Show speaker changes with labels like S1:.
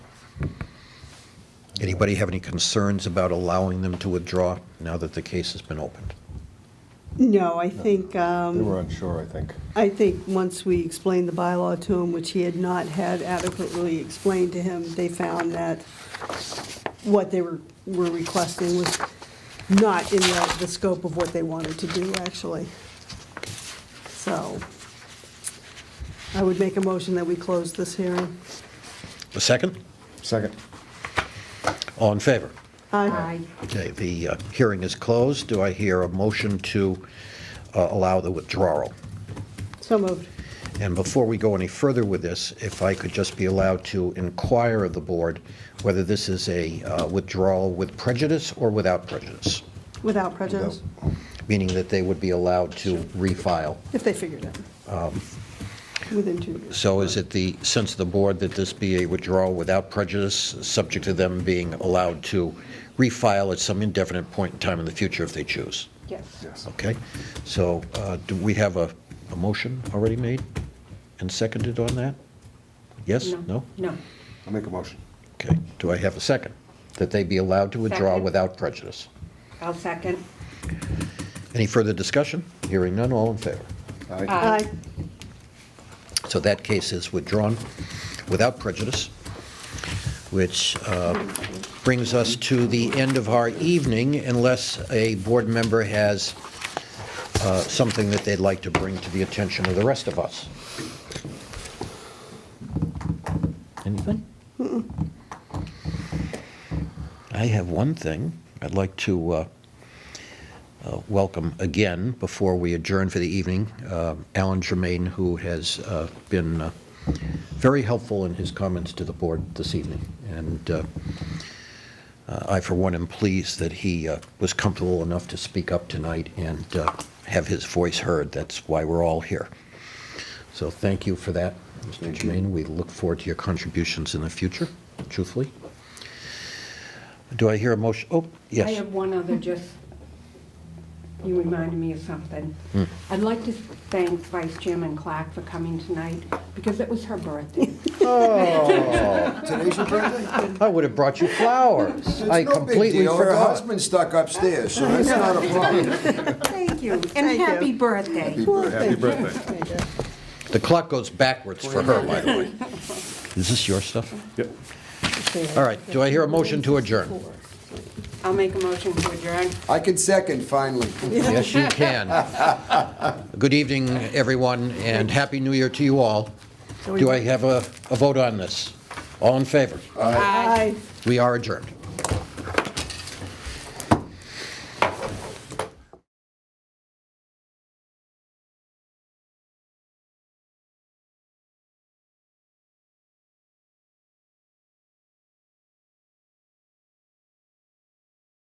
S1: Anybody have any concerns about allowing them to withdraw now that the case has been opened?
S2: No, I think, um,
S3: They were unsure, I think.
S2: I think once we explained the bylaw to him, which he had not had adequately explained to him, they found that what they were, were requesting was not in the, the scope of what they wanted to do, actually. So I would make a motion that we close this hearing.
S1: A second?
S3: Second.
S1: All in favor?
S2: Aye.
S1: Okay, the uh, hearing is closed. Do I hear a motion to uh, allow the withdrawal?
S2: So moved.
S1: And before we go any further with this, if I could just be allowed to inquire of the board whether this is a uh, withdrawal with prejudice or without prejudice,
S2: Without prejudice,
S1: meaning that they would be allowed to refile.
S2: if they figured it.
S3: Um.
S2: Within two years.
S1: So is it the sense of the board that this be a withdrawal without prejudice, subject to them being allowed to refile at some indefinite point in time in the future if they choose?
S2: Yes.
S3: Yes.
S1: Okay, so uh, do we have a, a motion already made and seconded on that? Yes? No?
S4: No.
S3: I'll make a motion.
S1: Okay, do I have a second? That they be allowed to withdraw
S4: Second.
S1: without prejudice?
S4: I'll second.
S1: Any further discussion? Hearing none, all in favor?
S5: Uh,
S3: Aye.
S2: Aye.
S4: Aye.
S1: So that case is withdrawn without prejudice, which uh, brings us to the end of our evening unless a board member has uh, something that they'd like to bring to the attention of the rest of us. Anything? I have one thing. I'd like to uh, uh, welcome again, before we adjourn for the evening, uh, Alan Germain, who has uh, been uh, very helpful in his comments to the board this evening. And uh, uh, I, for one, am pleased that he uh, was comfortable enough to speak up tonight and uh, have his voice heard. That's why we're all here. So thank you for that, Mr. Germain. We look forward to your contributions in the future, truthfully. Do I hear a motion? Oh, yes.
S4: I have one other, just, you reminded me of something. I'd like to thank Vice Chairman Clark for coming tonight, because it was her birthday.
S5: Today's your birthday?
S1: I would have brought you flowers.
S5: It's
S1: I
S5: no big
S1: completely
S5: deal. Her
S1: forgot.
S5: husband's stuck upstairs, so that's not a problem.
S4: Thank you, and
S2: Thank you.
S4: happy birthday.
S3: Happy birthday.
S1: The clock goes backwards for her, by the way. Is this your stuff?
S3: Yep.
S1: All right, do I hear a motion to adjourn?
S4: I'll make a motion to adjourn.
S5: I can second, finally.
S1: Yes, you can. Good evening, everyone, and Happy New Year to you all. Do I have a, a vote on this? All in favor?
S2: Aye.
S1: We are adjourned.